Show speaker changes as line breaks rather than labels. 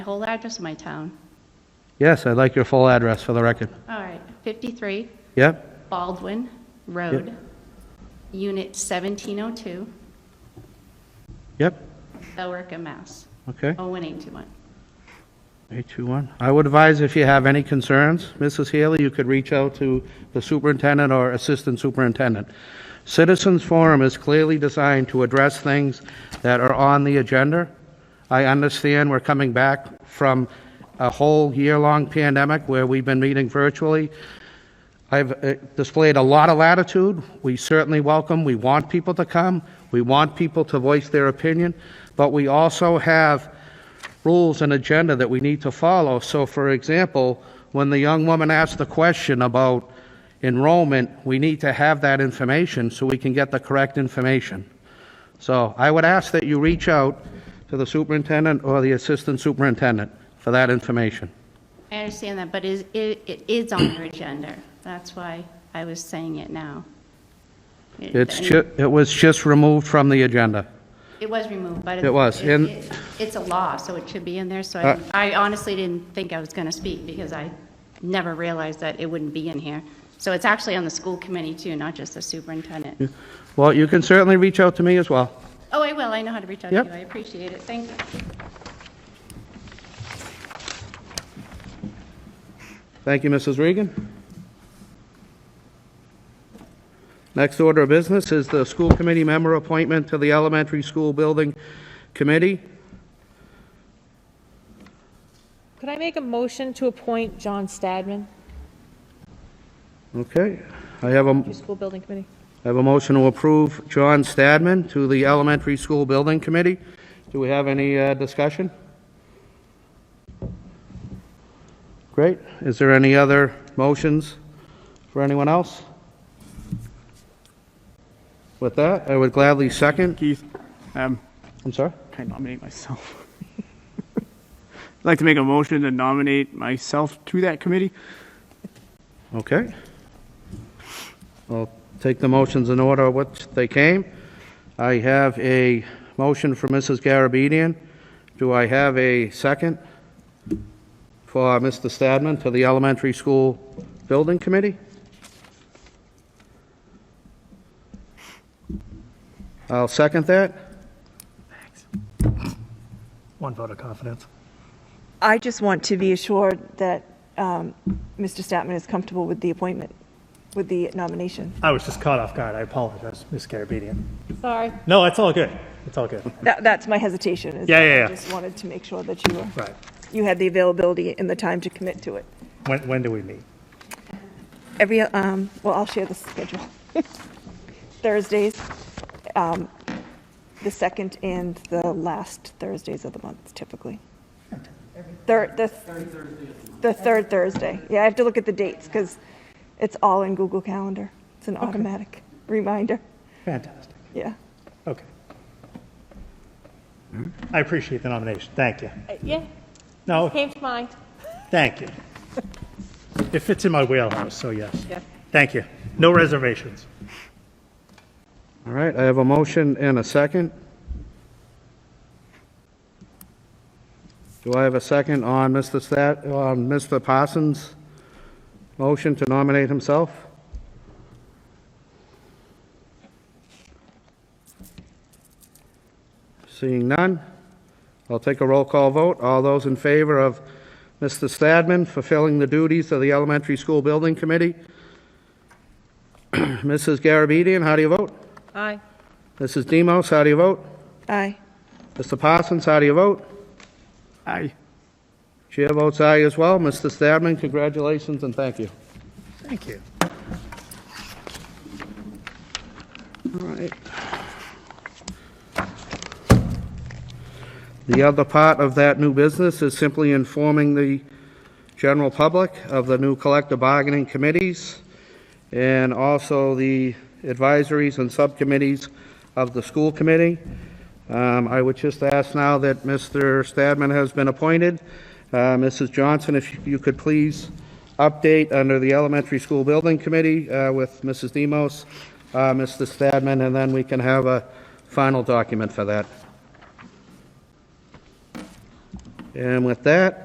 my whole address of my town.
Yes, I'd like your full address for the record.
All right, 53
Yep,
Baldwin Road, Unit 1702,
yep,
Billerica, Mass. Oh,
okay.
01821.
821. I would advise if you have any concerns, Mrs. Healy, you could reach out to the superintendent or assistant superintendent. Citizens Forum is clearly designed to address things that are on the agenda. I understand we're coming back from a whole year-long pandemic where we've been meeting virtually. I've uh, displayed a lot of latitude. We certainly welcome, we want people to come, we want people to voice their opinion, but we also have rules and agenda that we need to follow. So, for example, when the young woman asked the question about enrollment, we need to have that information so we can get the correct information. So I would ask that you reach out to the superintendent or the assistant superintendent for that information.
I understand that, but is- it it is on your agenda. That's why I was saying it now. It-
It's
and
ju, it was just removed from the agenda.
It was removed, but.
It was, and-
it- It's a law, so it should be in there, so
Uh,
I I honestly didn't think I was going to speak because I never realized that it wouldn't be in here. So it's actually on the school committee too, not just the superintendent.
Well, you can certainly reach out to me as well.
Oh, I will, I know how to reach out to you,
Yep.
I appreciate it, thank you.
Thank you, Mrs. Regan. Next order of business is the school committee member appointment to the elementary school building committee.
Could I make a motion to appoint John Stadman
Okay, I have a,
to School Building Committee?
I have a motion to approve John Stadman to the elementary school building committee. Do we have any uh, discussion? Great, is there any other motions for anyone else? With that, I would gladly second,
Keith, um,
I'm sorry?
can I nominate myself? I'd like to make a motion to nominate myself to that committee.
Okay. I'll take the motions in order which they came. I have a motion for Mrs. Garabedian. Do I have a second for Mr. Stadman to the Elementary School Building Committee? I'll second that.
One vote of confidence.
I just want to be assured that um, Mr. Statman is comfortable with the appointment, with the nomination.
I was just caught off guard. I apologize, Ms. Garabedian.
Sorry.
No, it's all good. It's all good.
That, that's my hesitation. is
Yeah,
that
yeah, yeah.
I just wanted to make sure that you were,
Right.
you had the availability and the time to commit to it.
When, when do we meet?
Every, um, well, I'll share the schedule. Thursdays, um, the second and the last Thursdays of the month typically. Third, the. Third Thursday. The third Thursday. Yeah, I have to look at the dates because it's all in Google Calendar. It's an automatic reminder.
Fantastic.
Yeah.
Okay. I appreciate the nomination. Thank you.
Uh, Yeah,
No,
came to mind.
thank you. It fits in my wheelhouse, so yes.
Yeah.
Thank you. No reservations.
All right, I have a motion and a second. Do I have a second on Mr. Stat, on Mr. Parsons' motion to nominate himself? Seeing none, I'll take a roll call vote. All those in favor of Mr. Stadman fulfilling the duties of the Elementary School Building Committee? Mrs. Garabedian, how do you vote?
Aye.
Mrs. Demos, how do you vote?
Aye.
Mr. Parsons, how do you vote?
Aye.
Chair votes aye as well. Mr. Stadman, congratulations and thank you.
Thank you.
All right. The other part of that new business is simply informing the general public of the new collective bargaining committees and also the advisories and subcommittees of the school committee. Um, I would just ask now that Mr. Stadman has been appointed. Uh, Mrs. Johnson, if you could please update under the Elementary School Building Committee uh, with Mrs. Demos, uh, Mr. Stadman, and then we can have a final document for that. And with that,